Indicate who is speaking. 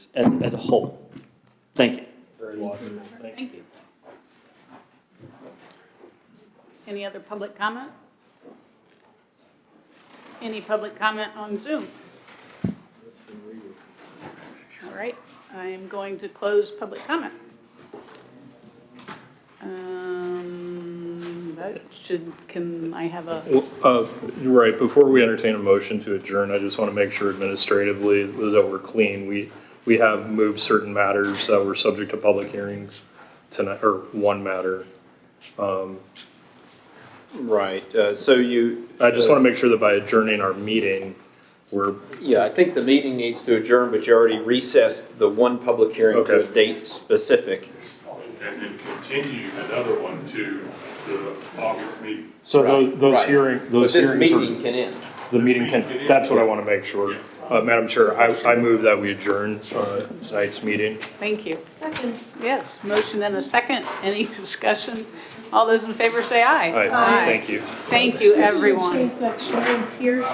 Speaker 1: as, as a whole. Thank you.
Speaker 2: Very logical. Thank you.
Speaker 3: Thank you. Any other public comment? Any public comment on Zoom?
Speaker 2: That's been real.
Speaker 3: All right, I am going to close public comment. Um, That should, can I have a,
Speaker 4: Well, uh, You're right, before we entertain a motion to adjourn, I just want to make sure administratively that we're clean. We, we have moved certain matters that were subject to public hearings tonight, or one matter.
Speaker 2: Right, uh, so you. uh,
Speaker 4: I just want to make sure that by adjourning our meeting, we're,
Speaker 2: Yeah, I think the meeting needs to adjourn, but you already recessed the one public hearing to a
Speaker 4: Okay.
Speaker 2: date specific.
Speaker 5: and then continue another one to the August meeting.
Speaker 4: so tho- those
Speaker 2: Right.
Speaker 4: hearing,
Speaker 2: But
Speaker 4: those
Speaker 2: this
Speaker 4: hearings
Speaker 2: meeting
Speaker 4: are,
Speaker 2: can end.
Speaker 4: the meeting can, that's what I want to make sure. Uh, Madam Chair, I, I move that we adjourn uh, tonight's meeting.
Speaker 3: thank you. Yes, motion and a second. Any discussion? All those in favor say aye.
Speaker 4: All right, thank you.
Speaker 3: Thank you, everyone.
Speaker 6: Change that Sharon Pierce